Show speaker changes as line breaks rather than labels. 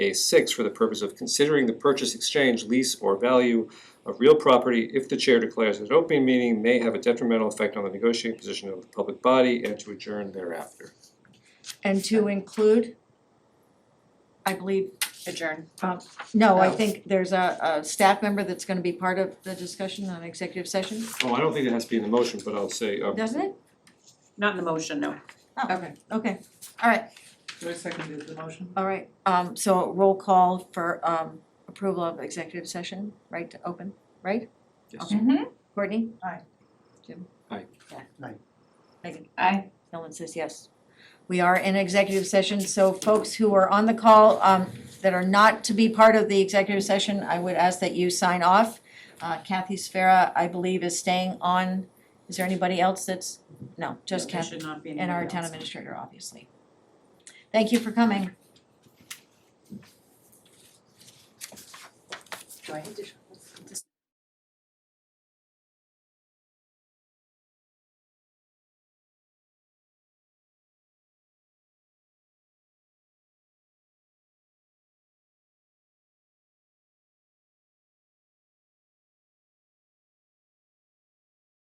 A six, for the purpose of considering the purchase, exchange, lease, or value of real property if the chair declares that an open meeting may have a detrimental effect on the negotiating position of the public body and to adjourn thereafter.
and to include,
I believe adjourn.
um, no, I
Oh.
think there's a, a staff member that's gonna be part of the discussion on executive session,
Oh, I don't think it has to be in the motion, but I'll say, um,
doesn't it?
Not in the motion, no.
Okay, Oh. okay, all right,
Who seconded the motion?
all right, um, so roll call for, um, approval of executive session, right, to open, right?
Yes.
Okay. Courtney?
Aye.
Jim?
Aye.
Yeah.
Aye.
Megan?
Aye.
Ellen says yes. We are in executive session, so folks who are on the call, um, that are not to be part of the executive session, I would ask that you sign off. Uh, Kathy Sfera, I believe, is staying on. Is there anybody else that's, no, just
There
Kathy
should not be
and our
anybody
town
else.
administrator, obviously. Thank you for coming.
Do I need to?